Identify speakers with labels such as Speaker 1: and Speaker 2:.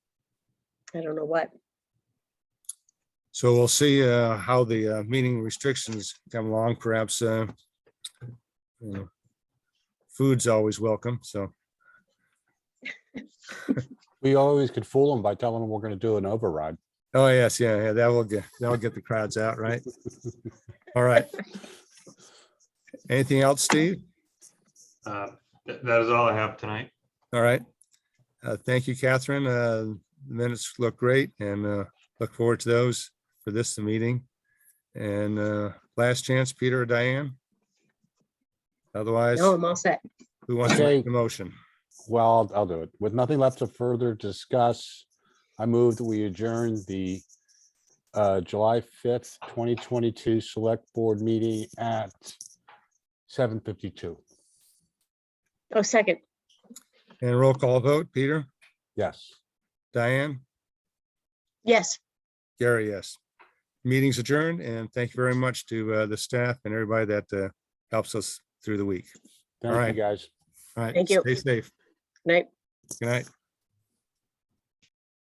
Speaker 1: I don't know what.
Speaker 2: So we'll see uh, how the uh, meeting restrictions come along, perhaps. uh, you know, Food's always welcome, so.
Speaker 3: We always could fool them by telling them we're gonna do an override.
Speaker 2: Oh, yes, yeah, yeah, that will get, that'll get the crowds out, right? All right. Anything else, Steve?
Speaker 4: Uh, th- That is all I have tonight.
Speaker 2: All right. Uh, Thank you, Catherine. Uh, The Minutes look great and uh, look forward to those for this meeting. And uh, last chance, Peter or Diane? Otherwise,
Speaker 1: No, I'm all set.
Speaker 2: who wants to make the motion?
Speaker 3: Well, I'll- I'll do it. With nothing left to further discuss, I move that we adjourn the uh, July fifth, twenty twenty-two Select Board meeting at seven fifty-two.
Speaker 1: Oh, second.
Speaker 2: And roll call vote, Peter,
Speaker 3: Yes.
Speaker 2: Diane,
Speaker 1: Yes.
Speaker 2: Gary, yes. Meeting's adjourned and thank you very much to uh, the staff and everybody that uh, helps us through the week.
Speaker 3: Thank
Speaker 2: right.
Speaker 3: you, guys.
Speaker 2: All right.
Speaker 1: Thank you.
Speaker 2: Stay safe.
Speaker 1: Night.
Speaker 2: Good night.